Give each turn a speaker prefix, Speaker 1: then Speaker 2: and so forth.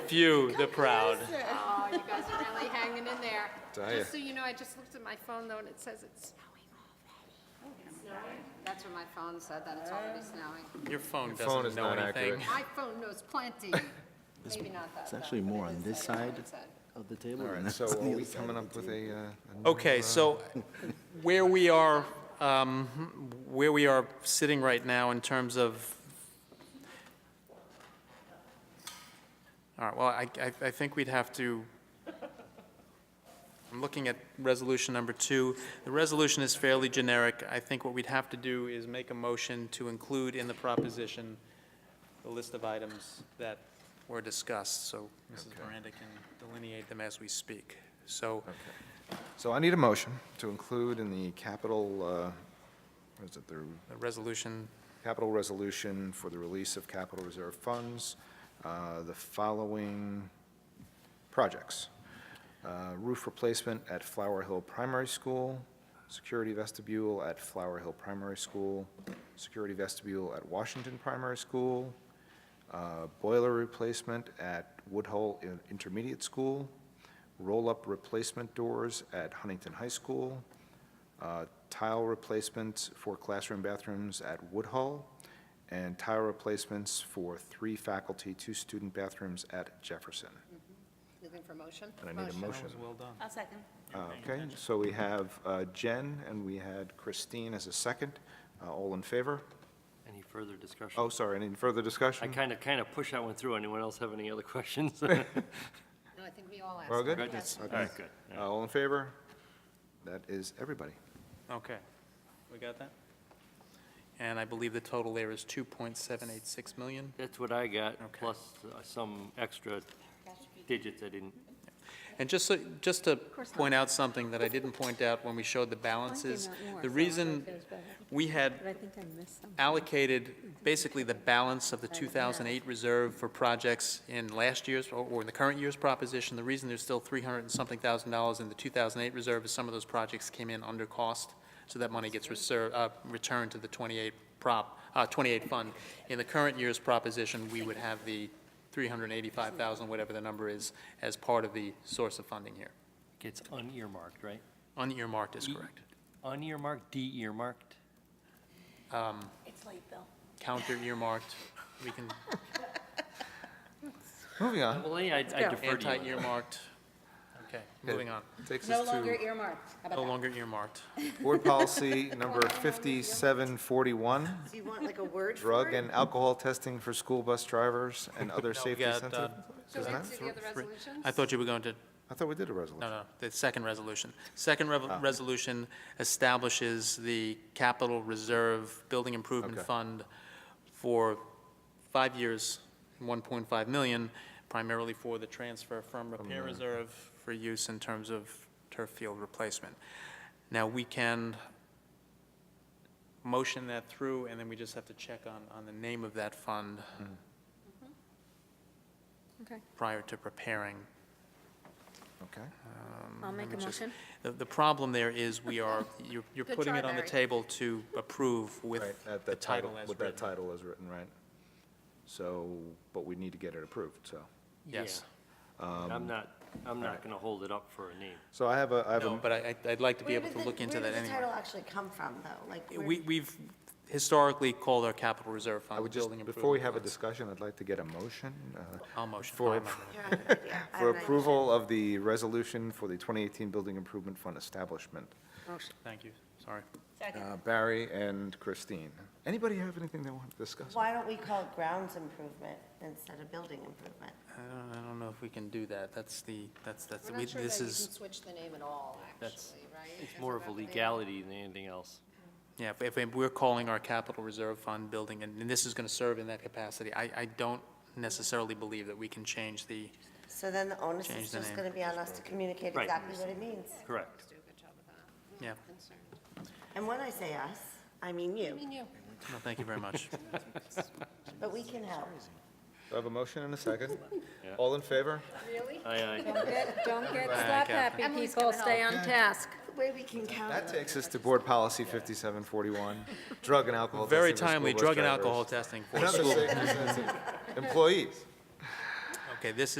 Speaker 1: few, the proud.
Speaker 2: Oh, you guys are really hanging in there.
Speaker 3: Tell ya.
Speaker 2: Just so you know, I just looked at my phone though, and it says it's snowing already. That's what my phone said, that it's already snowing.
Speaker 1: Your phone
Speaker 3: Your phone
Speaker 1: doesn't
Speaker 3: is
Speaker 1: know
Speaker 3: not accurate.
Speaker 1: anything.
Speaker 2: My phone knows plenty. Maybe not that.
Speaker 4: It's
Speaker 2: though,
Speaker 4: actually
Speaker 2: but
Speaker 4: more
Speaker 2: it
Speaker 4: on
Speaker 2: is
Speaker 4: this
Speaker 2: saying what
Speaker 4: side
Speaker 2: it said.
Speaker 4: of the table.
Speaker 3: All
Speaker 4: and
Speaker 3: right,
Speaker 4: that's
Speaker 3: so
Speaker 4: on the
Speaker 3: are we
Speaker 4: other side
Speaker 3: coming
Speaker 4: of
Speaker 3: up
Speaker 4: the
Speaker 3: with
Speaker 4: table.
Speaker 3: a, uh, a new,
Speaker 1: Okay,
Speaker 3: uh,
Speaker 1: so where we are, um, where we are sitting right now in terms of, all right, well, I, I- I think we'd have to, I'm looking at resolution number two. The resolution is fairly generic. I think what we'd have to do is make a motion to include in the proposition the list of items that were discussed, so Mrs.
Speaker 3: Okay.
Speaker 1: Miranda can delineate them as we speak. So,
Speaker 3: So I need a motion to include in the capital, uh, what is it, the
Speaker 1: the resolution
Speaker 3: capital resolution for the release of capital reserve funds, uh, the following projects. Uh, Roof replacement at Flower Hill Primary School, security vestibule at Flower Hill Primary School, security vestibule at Washington Primary School, uh, boiler replacement at Woodhull In- Intermediate School, roll-up replacement doors at Huntington High School, uh, tile replacements for classroom bathrooms at Woodhull, and tile replacements for three faculty, two student bathrooms at Jefferson.
Speaker 2: Looking for motion?
Speaker 3: And I need a motion.
Speaker 1: well done.
Speaker 5: I'll second.
Speaker 3: Uh, Okay, so we have uh, Jen, and we had Christine as a second. Uh, All in favor?
Speaker 6: Any further discussion?
Speaker 3: Oh, sorry, any further
Speaker 6: I
Speaker 3: discussion?
Speaker 6: kind of, kind of pushed that one through. Anyone else have any other questions?
Speaker 2: No, I think we all asked.
Speaker 3: We're all good?
Speaker 6: Good? All right, good.
Speaker 3: Uh,
Speaker 4: Oh.
Speaker 3: All in favor? That is everybody.
Speaker 1: Okay, we got that? And I believe the total there is 2.786 million?
Speaker 6: That's what I got,
Speaker 1: Okay.
Speaker 6: plus uh, some extra digits I didn't,
Speaker 1: And just, so- just to point out something that I didn't point out when we showed the balances, the reason we had
Speaker 5: But I think I missed some.
Speaker 1: allocated basically the balance of the 2008 reserve for projects in last year's, or or in the current year's proposition. The reason there's still 300 and something thousand dollars in the 2008 reserve is some of those projects came in under cost, so that money gets reserved, returned to the 28 prop, uh, 28 fund. In the current year's proposition, we would have the 385,000, whatever the number is, as part of the source of funding here.
Speaker 6: gets unearmarked, right?
Speaker 1: Unearmarked is correct.
Speaker 6: Unearmarked, de-earmarked?
Speaker 5: It's late, Bill.
Speaker 1: Counter Um, earmarked, we can,
Speaker 3: Moving on.
Speaker 6: Well, yeah, I I
Speaker 5: go.
Speaker 6: defer to you.
Speaker 1: anti-earmarked. Okay, moving on.
Speaker 3: Takes
Speaker 2: No
Speaker 3: us
Speaker 2: longer
Speaker 3: to
Speaker 2: earmarked. How
Speaker 1: No
Speaker 2: about
Speaker 1: longer earmarked.
Speaker 3: board policy number 5741,
Speaker 7: Do you want like a word for
Speaker 3: drug
Speaker 7: it?
Speaker 3: and alcohol testing for school bus drivers and other
Speaker 1: No, we
Speaker 3: safety
Speaker 1: got,
Speaker 3: sensitive.
Speaker 1: uh,
Speaker 2: that? Go
Speaker 3: Isn't
Speaker 2: into
Speaker 3: that-
Speaker 2: the other
Speaker 1: Three.
Speaker 2: resolutions?
Speaker 1: I thought you were going to,
Speaker 3: I thought we did a resolution.
Speaker 1: no, no, the second resolution. Second rev- resolution establishes the capital reserve building improvement
Speaker 3: Okay.
Speaker 1: fund for five years, 1.5 million, primarily for the transfer from repair reserve for use in terms of turf field replacement. Now, we can motion that through, and then we just have to check on, on the name of that fund
Speaker 5: Okay,
Speaker 1: prior to preparing
Speaker 3: Okay.
Speaker 5: I'll make a
Speaker 1: Let me just-
Speaker 5: motion.
Speaker 1: The, the problem there is we are, you're, you're
Speaker 2: Good
Speaker 1: putting
Speaker 2: try,
Speaker 1: it on the
Speaker 2: Barry.
Speaker 1: table to approve with
Speaker 3: Right, at
Speaker 1: the title as
Speaker 3: With that
Speaker 1: written.
Speaker 3: title as written, right? So, but we need to get it approved, so.
Speaker 1: Yes.
Speaker 4: Um,
Speaker 6: I'm not, I'm
Speaker 3: right.
Speaker 6: not going to hold it up for a name.
Speaker 3: So I have a, I have
Speaker 1: No,
Speaker 3: a,
Speaker 1: but I, I'd- I'd like to be
Speaker 7: Where
Speaker 1: able
Speaker 7: did
Speaker 1: to
Speaker 7: the-
Speaker 1: look into that
Speaker 7: Where did the title
Speaker 1: anyway.
Speaker 7: actually come from, though? Like, where-
Speaker 1: We, we've historically called our capital reserve
Speaker 3: I
Speaker 1: fund the
Speaker 3: would just,
Speaker 1: building improvement.
Speaker 3: before we have a
Speaker 1: funds.
Speaker 3: discussion, I'd like to get a motion. uh,
Speaker 1: I'll motion.
Speaker 3: for-
Speaker 1: I'll amend it.
Speaker 7: Here, I have an idea.
Speaker 3: For
Speaker 7: I have an idea.
Speaker 3: approval of the resolution for the 2018 Building Improvement Fund Establishment.
Speaker 1: Thank you, sorry.
Speaker 5: Second.
Speaker 3: Uh, Barry and Christine. Anybody have anything they want to discuss?
Speaker 7: Why don't we call it grounds improvement instead of building improvement?
Speaker 1: I don't, I don't know if we can do that. That's the, that's, that's,
Speaker 2: We're
Speaker 1: we-
Speaker 2: not sure that
Speaker 1: this
Speaker 2: you can
Speaker 1: is,
Speaker 2: switch the name at all,
Speaker 6: That's-
Speaker 2: actually, right?
Speaker 6: It's more of a legality than anything else.
Speaker 1: yeah, if- if we're calling our capital reserve fund building, and and this is going to serve in that capacity, I, I don't necessarily believe that we can change the,
Speaker 7: So then the onus
Speaker 1: Change
Speaker 7: is
Speaker 1: the
Speaker 7: just
Speaker 1: name.
Speaker 7: going to be on us to communicate
Speaker 6: Right.
Speaker 7: exactly what it means.
Speaker 6: Correct.
Speaker 2: Do a good job with that.
Speaker 1: yeah.
Speaker 2: Concerned.
Speaker 7: And when I say us, I mean
Speaker 2: I
Speaker 7: you,
Speaker 2: mean, you.
Speaker 1: No, thank you very much.
Speaker 7: but we can help.
Speaker 3: I have a motion and a second.
Speaker 6: Yeah.
Speaker 3: All in favor?
Speaker 2: Really?
Speaker 6: Aye, aye.
Speaker 5: Don't get
Speaker 1: Right,
Speaker 5: slap
Speaker 1: Catherine.
Speaker 5: happy, people, stay on task.
Speaker 7: The way we can count
Speaker 3: That
Speaker 7: on
Speaker 3: takes us to Board Policy 5741, drug and alcohol testing.
Speaker 1: Very
Speaker 3: for school
Speaker 1: timely,
Speaker 3: bus
Speaker 1: drug and
Speaker 3: drivers.
Speaker 1: alcohol testing for
Speaker 3: Another
Speaker 1: school.
Speaker 3: safety sensitive. Employees.
Speaker 1: Okay, this